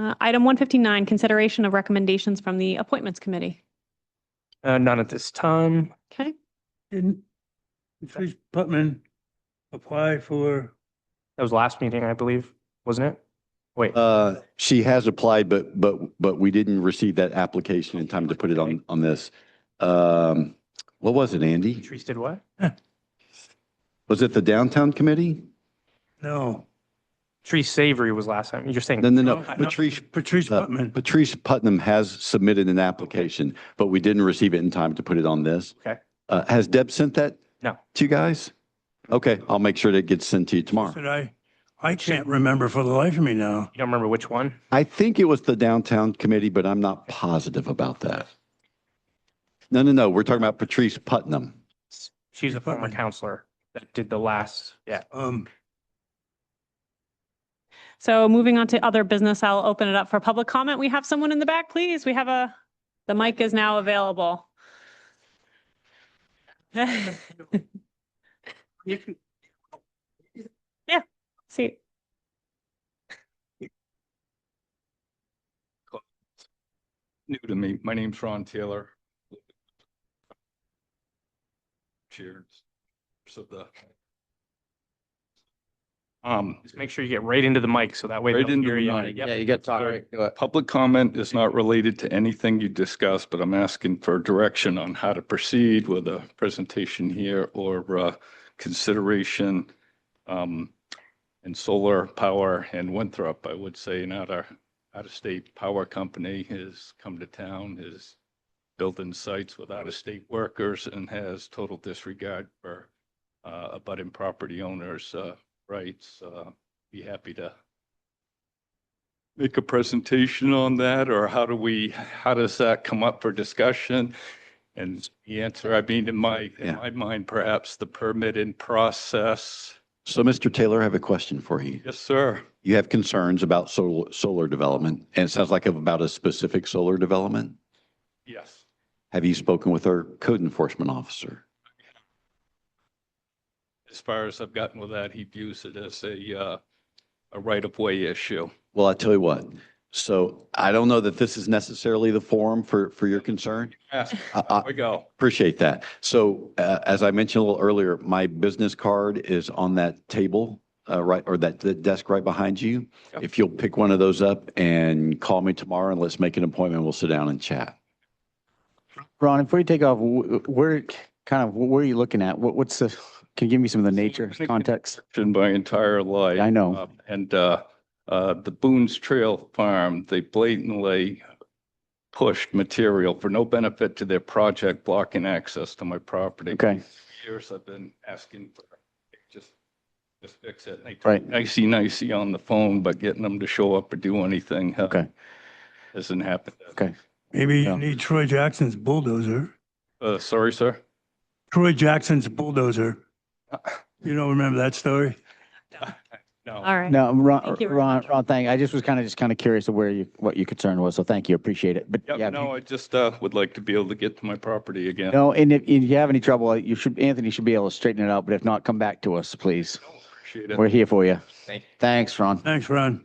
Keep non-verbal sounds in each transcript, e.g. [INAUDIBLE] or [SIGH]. Uh, Item 159, consideration of recommendations from the Appointments Committee. Uh, none at this time. Okay, Didn't Patrice Putman apply for, That was last meeting, I believe, wasn't it? Wait, Uh, she has applied, but, but, but we didn't receive that application in time to put it on, on this. Um, what was it, Andy? Patrice did what? Was it the downtown committee? no, Patrice Savory was last time. You're saying. No, no, no. No, I don't- Patrice, Patrice uh, Putman. Patrice Putnam has submitted an application, but we didn't receive it in time to put it on this. Okay. Uh, has Deb sent that? No. To you guys? Okay, I'll make sure that gets sent to you tomorrow. Said I, I can't remember for the life of me now. You don't remember which one? I think it was the downtown committee, but I'm not positive about that. No, no, no, we're talking about Patrice Putnam. She's a former Putnam. counselor that did the last, yeah. Um, so moving on to other business, I'll open it up for public comment. We have someone in the back, please. We have a, the mic is now available. [LAUGHS] Yeah, see. new to me. My name's Ron Taylor. Cheers. So the. Um, Just make sure you get right into the mic so that way. Right they'll into hear the you. mic. Yep. Yeah, you got to talk Sorry. right to it. public comment is not related to anything you discussed, but I'm asking for direction on how to proceed with a presentation here or uh, consideration um, in solar power and Winthrop, I would say, not our out-of-state power company has come to town, has built-in sites with out-of-state workers and has total disregard for uh, abutting property owners' uh, rights. Uh, Be happy to make a presentation on that, or how do we, how does that come up for discussion? And the answer, I mean, in my, Yeah. in my mind, perhaps the permitting process. So Mr. Taylor, I have a question for you. Yes, sir. You have concerns about solar, solar development, and it sounds like about a specific solar development. Yes. Have you spoken with our code enforcement officer? As far as I've gotten with that, he views it as a, uh, a right-of-way issue. Well, I tell you what, so I don't know that this is necessarily the forum for, for your concern. Ask, I- I- Uh, there we go. Appreciate that. So uh, as I mentioned a little earlier, my business card is on that table, uh, right, or that, that desk right behind you. Yep. If you'll pick one of those up and call me tomorrow and let's make an appointment, we'll sit down and chat. Ron, before you take off, wh- where, kind of, where are you looking at? What, what's the, can you give me some of the So nature I'm thinking- context? In my entire life. I know. Uh, And, uh, uh, the Boone's Trail Farm, they blatantly pushed material for no benefit to their project blocking access to my property. Okay, years I've been asking for, just, just fix it. They Right. talk Nicey nicey on the phone, but getting them to show up or do anything. uh, Okay. Hasn't happened. okay. maybe you Yeah. need Troy Jackson's bulldozer. Uh, sorry, sir. Troy Jackson's bulldozer. Uh, You don't remember that story? [LAUGHS] No, All right. No, Ron, Thank you very Ron, much. Ron, thank, I just was kind of, just kind of curious of where you, what your concern was. So thank you, appreciate it. But yeah. Yep, if you- no, I just, uh, would like to be able to get to my property again. No, and if, if you have any trouble, you should, Anthony should be able to straighten it out, but if not, come back to us, please. Appreciate it. We're here for you. Thank you. Thanks, Ron. Thanks, Ron.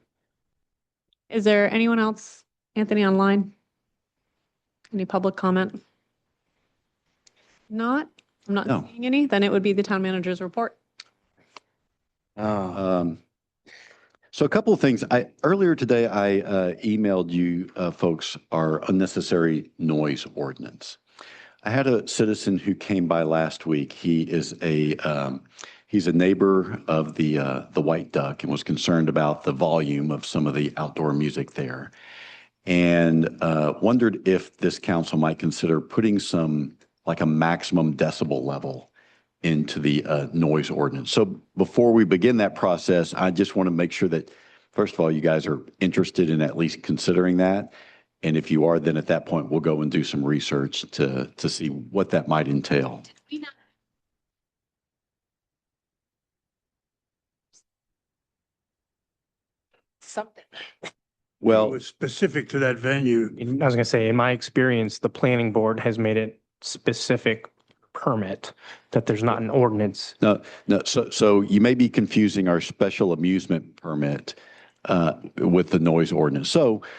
Is there anyone else? Anthony online? Any public comment? Not, I'm No. not seeing any. Then it would be the town manager's report. Oh. Um, So a couple of things. I, earlier today, I uh, emailed you uh, folks our unnecessary noise ordinance. I had a citizen who came by last week. He is a, um, he's a neighbor of the, uh, the White Duck and was concerned about the volume of some of the outdoor music there. And uh, wondered if this council might consider putting some, like a maximum decibel level into the uh, noise ordinance. So before we begin that process, I just want to make sure that, first of all, you guys are interested in at least considering that. And if you are, then at that point, we'll go and do some research to, to see what that might entail. Something. It Well, was specific to that venue. In- I was gonna say, in my experience, the planning board has made it specific permit that there's not an ordinance. no, so, so you may be confusing our special amusement permit uh, with the noise ordinance. So